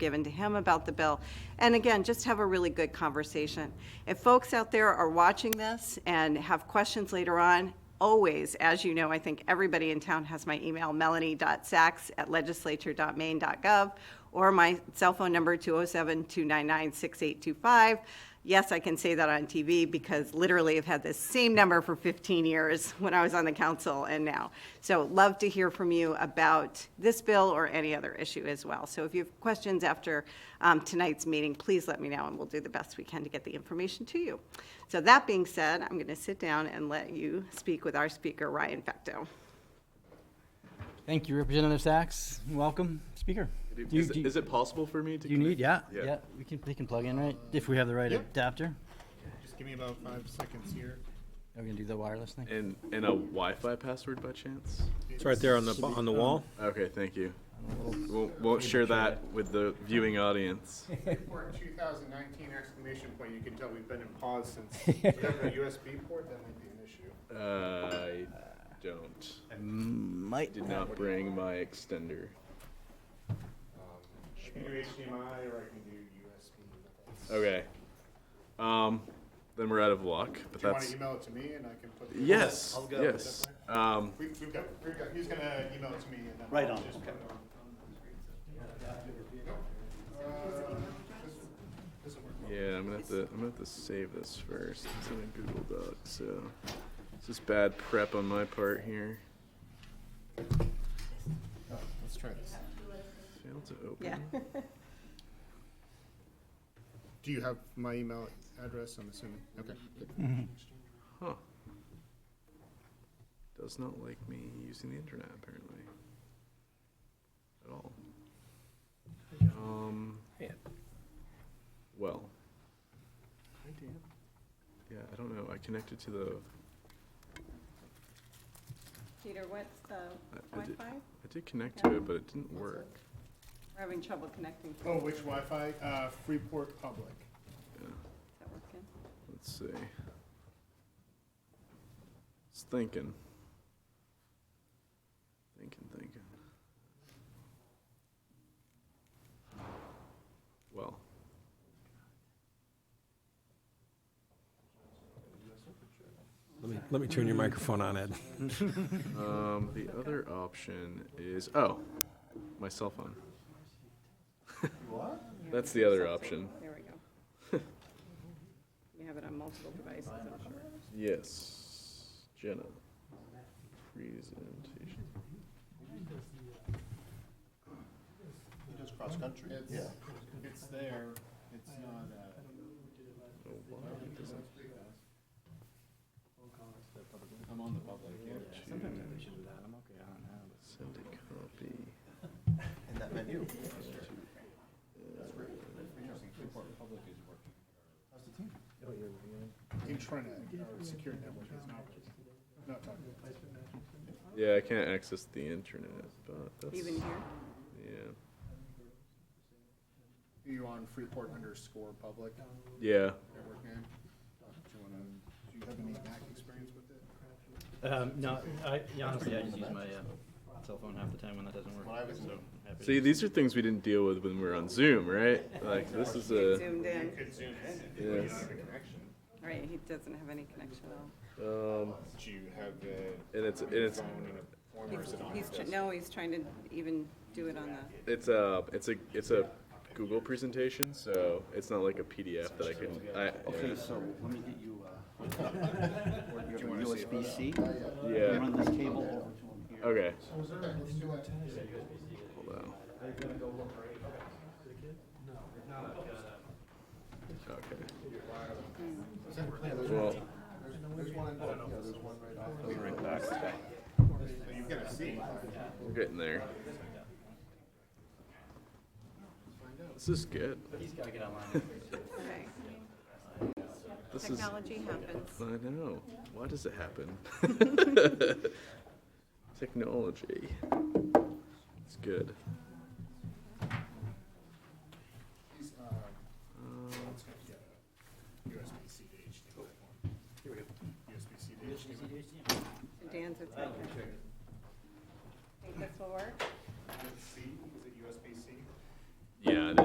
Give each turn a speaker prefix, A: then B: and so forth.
A: given to him about the bill. And again, just have a really good conversation. If folks out there are watching this and have questions later on, always, as you know, I think everybody in town has my email, melanie.sacks@legislature.maine.gov, or my cell phone number, 207-299-6825. Yes, I can say that on TV because literally I've had this same number for 15 years when I was on the council and now. So love to hear from you about this bill or any other issue as well. So if you have questions after um, tonight's meeting, please let me know and we'll do the best we can to get the information to you. So that being said, I'm going to sit down and let you speak with our speaker, Ryan Fecto.
B: Thank you, Representative Sachs. Welcome, Speaker.
C: Do-
B: Do you-
C: Is,
B: do
C: it-
B: you-
C: is it possible for me to?
B: do you need, yeah,
C: connect?
B: yeah, we can, they can plug in, right? If we have the right adapter.
D: Just give me about five seconds here.
B: Are we gonna do the wireless thing?
C: And, and a Wi-Fi password by chance?
E: It's right there on the, on the wall.
C: Okay, thank you. Won't, won't share that with the viewing audience.
D: Port 2019 exclamation point, you can tell we've been in pause since, whatever USB port, that might be an issue.
C: I don't,
B: Might.
C: did not bring my extender.
D: I can do HDMI or I can do USB. Do
C: Okay. Um, then we're out of luck, but
D: you want to
C: that's,
D: email it to me and I can put? the-
C: yes,
D: I'll-
C: yes. Um,
D: We- We've got, we've got, he's gonna email it to me and then.
B: Right
D: I'll
B: on,
D: just put it on. Uh, this- This'll work.
C: yeah, I'm gonna have to, I'm gonna have to save this first. It's in a Google Doc, so. It's just bad prep on my part here.
D: Let's try this.
C: Failed to open.
A: Yeah.
D: Do you have my email address, I'm assuming? Okay.
B: Mm-hmm.
C: Huh. Does not like me using the internet apparently. At all. Um. Well. Hi Dan. Yeah, I don't know. I connected to the.
A: Peter, what's
C: I-
A: the
C: I did-
A: Wi-Fi?
C: I did connect to it, but it didn't work.
A: We're having trouble connecting. Is
D: Oh, which Wi-Fi? Uh, Freeport Public.
A: that working?
C: Let's see. It's thinking. Thinking, thinking. Well.
E: Let me, let me turn your microphone on, Ed.
C: Um, the other option is oh, my cell phone. what? That's the other option.
A: There we go. You have it on multiple devices, I'm sure.
C: Yes, Jenna. Presentation.
D: Just cross-country? It's, it's there, it's not, uh.
C: Oh, why it doesn't-
D: I'm on the public, yeah.
C: Send a copy.
F: in that menu.
D: Intranet, or uh, secure network is not, not talking about.
C: Yeah, I can't access the internet, but that's
A: Even here?
C: Uh, yeah,
D: Are you on Freeport underscore public
C: yeah.
D: network name? Do you wanna, do you have any Mac experience with it?
B: Um, no, I, yeah, honestly, I just use my, uh, cell phone half the time when that doesn't work, so. I'm happy to-
C: See, these are things we didn't deal with when we were on Zoom, right? Like this is a
A: Zoomed in.
D: It's Zoom.
C: yes.
A: Right, he doesn't have any connection at all.
C: Um,
D: Do you have a?
C: and it's and it's
D: Form or is it on?
A: He's, tr- no, he's trying to even do it on the,
C: It's a it's a it's a Google presentation, so it's not like a PDF that I can. I,
F: Okay, so let me get you, uh, you have a USB-C?
C: yeah.
F: Run this cable over to him here.
C: Okay.
D: Let's do that.
C: Hold on. Okay. Well,
D: You've got a C.
C: we're getting there. This is good.
A: okay.
C: This is. I
A: Technology happens.
C: know. Why does it happen? Technology. It's good.
D: He's, uh, let's go get a USB-C to HDMI. Here we go. USB-C to HDMI.
A: Dan's, it's right here.